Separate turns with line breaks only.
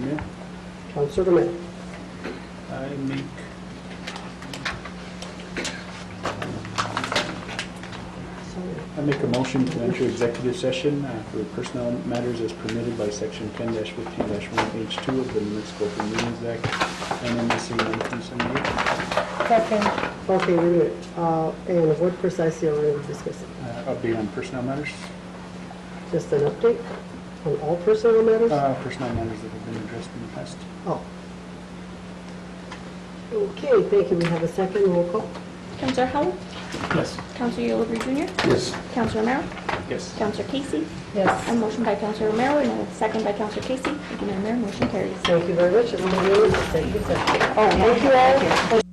Mayor.
Councilor Romero.
I make, I make a motion to enter executive session uh, for personnel matters as permitted by section ten fifteen one H two of the Municipal Open Meetings Act, NMC nineteen seventy-eight.
Second.
Okay, wait a minute. Uh, And what precisely are we going to be discussing?
Uh, Update on personnel matters,
Just an update on all personnel matters?
uh, personnel matters that have been addressed in the past.
Oh. Okay, thank you. We have a second roll call.
Counselor Howell?
Yes.
Counselor Yulubri Jr.?
Yes.
Counselor Romero?
Yes.
Counselor Casey?
Yes.
A motion by Counselor Romero and a second by Counselor Casey. Thank you, Madam Mayor. Motion carries.
Thank you very much. Everybody else, thank you.
Oh, thank you all.